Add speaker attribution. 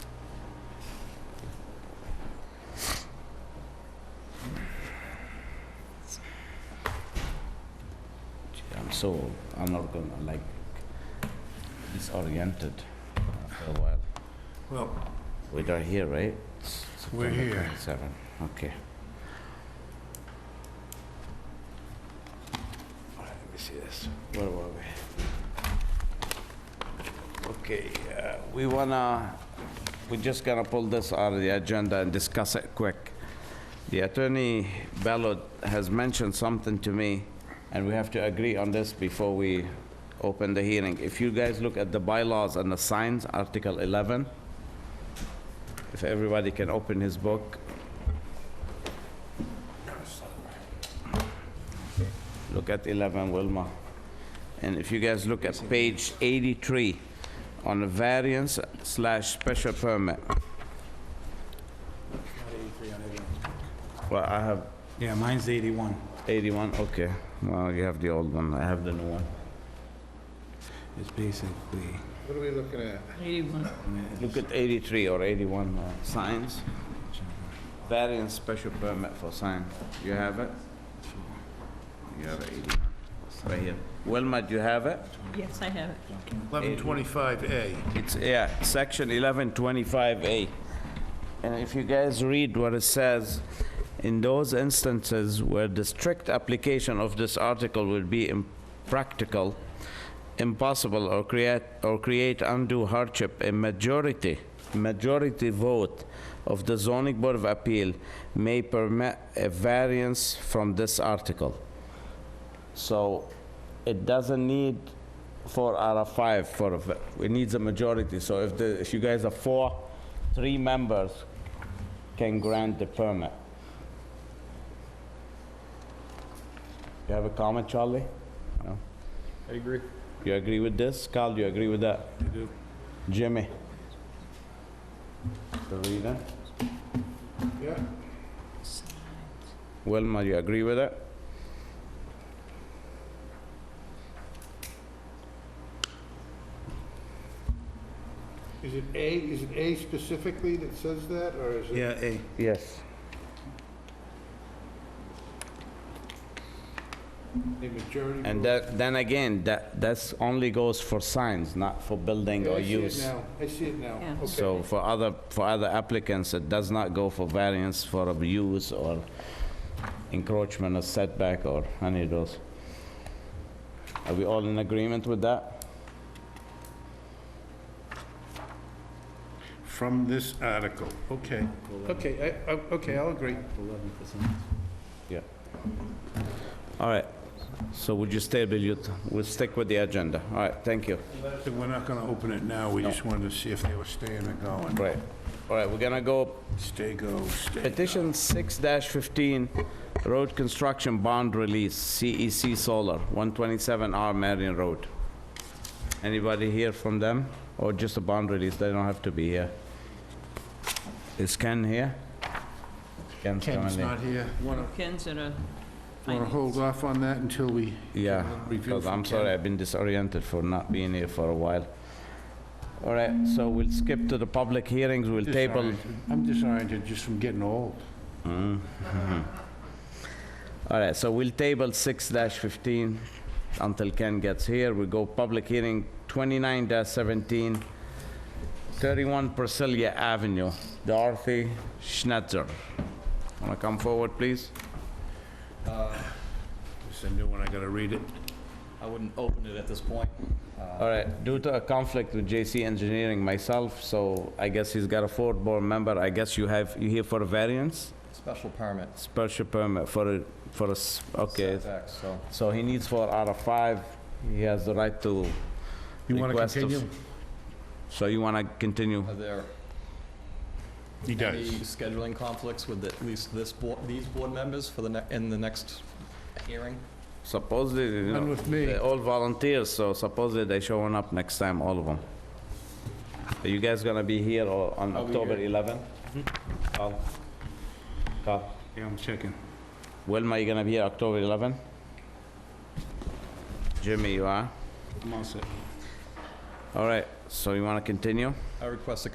Speaker 1: so I'm not gonna like disoriented after a while.
Speaker 2: Well,
Speaker 1: We are here, right?
Speaker 2: We're
Speaker 1: September
Speaker 2: here.
Speaker 1: 27. Okay. All right, Let me see this. Where were we? Okay, uh, we wanna, we just gonna pull this out of the agenda and discuss it quick. The attorney Ballard has mentioned something to me, and we have to agree on this before we open the hearing. If you guys look at the bylaws and the signs, Article 11, if everybody can open his book. Look at 11, Wilma. And if you guys look at page 83, on a variance slash special permit. Well, I have
Speaker 2: yeah, mine's 81.
Speaker 1: 81, okay. Well, you have the old one, I have the new one.
Speaker 2: It's basically,
Speaker 3: What are we looking at?
Speaker 4: 81.
Speaker 1: Look at 83 or 81, uh, signs. Variance special permit for sign. You have it? You have 81, It's right here. Wilma, do you have it?
Speaker 4: Yes, I have it.
Speaker 3: 1125A.
Speaker 1: It's, yeah, section 1125A. And if you guys read what it says, in those instances where the strict application of this article would be impractical, impossible, or create, or create undue hardship, a majority, majority vote of the zoning board of appeal may permit a variance from this article. So it doesn't need four out of five for, a v- it needs a majority. So if the, if you guys are four, three members can grant the permit. You have a comment, Charlie? No?
Speaker 3: I agree.
Speaker 1: You agree with this? Carl, you agree with that? I
Speaker 3: do.
Speaker 1: Jimmy? Rita?
Speaker 3: Yeah.
Speaker 1: Wilma, you agree with it?
Speaker 3: Is it A, is it A specifically that says that, or is it?
Speaker 2: yeah, A.
Speaker 1: Yes.
Speaker 3: A majority?
Speaker 1: And
Speaker 3: vote?
Speaker 1: that, then again, that, that's only goes for signs, not for building
Speaker 3: Yeah,
Speaker 1: or
Speaker 3: I see it
Speaker 1: use.
Speaker 3: now. I see it now.
Speaker 4: Yeah.
Speaker 3: Okay.
Speaker 1: So for other, for other applicants, it does not go for variance for abuse or encroachment or setback or any of those. Are we all in agreement with that?
Speaker 3: From this article, okay. Okay, I, I, okay, I'll agree.
Speaker 1: Yeah. All right, so would you stay, Bill? You- We'll stick with the agenda. All right, thank you.
Speaker 3: So We're not gonna open it now, we just wanted to see if they were staying or going.
Speaker 1: Right. All right, we're gonna go
Speaker 3: Stay, go, stay. go.
Speaker 1: Petition 6-15, road construction bond release, CEC Solar, 127R Marion Road. Anybody here from them? Or just a bond release, they don't have to be here. Is Ken here? Ken's
Speaker 3: Ken's
Speaker 1: coming in.
Speaker 3: not here. Wanna,
Speaker 4: Ken's at a
Speaker 3: wanna
Speaker 4: finance.
Speaker 3: hold off on that until we?
Speaker 1: Yeah,
Speaker 3: Review
Speaker 1: because
Speaker 3: from
Speaker 1: I'm sorry,
Speaker 3: Ken.
Speaker 1: I've been disoriented for not being here for a while. All right, so we'll skip to the public hearings, we'll table.
Speaker 3: Disoriented. I'm disoriented just from getting old.
Speaker 1: All right, so we'll table 6-15 until Ken gets here. We go public hearing 29-17, 31 Priscilla Avenue, Dorothy Schnitzer. Want to come forward, please?
Speaker 3: It's a new one, I gotta read it.
Speaker 5: I wouldn't open it at this point. Uh,
Speaker 1: All right, due to a conflict with JC Engineering myself, so I guess he's got a fourth board member. I guess you have, you here for a variance?
Speaker 5: Special permits.
Speaker 1: Special permit for a, for a, s- okay.
Speaker 5: Setbacks, so.
Speaker 1: So he needs four out of five. He has the right to
Speaker 3: You wanna
Speaker 1: request of-
Speaker 3: continue?
Speaker 1: So you want to continue?
Speaker 5: Are there
Speaker 3: He
Speaker 5: any scheduling conflicts with at least this board, these board members for the, ne- in the next hearing?
Speaker 1: Supposedly, you
Speaker 3: None
Speaker 1: know,
Speaker 3: with me.
Speaker 1: they're all volunteers, so supposedly they showing up next time, all of them. Are you guys gonna be here or on
Speaker 5: I'll be
Speaker 1: October
Speaker 5: here.
Speaker 1: 11?
Speaker 3: Mm-hmm.
Speaker 1: Carl? Carl?
Speaker 2: Yeah, I'm checking.
Speaker 1: Wilma, you gonna be here October 11? Jimmy, you are?
Speaker 2: I'm all set.
Speaker 1: All right, so you wanna continue?
Speaker 5: I request a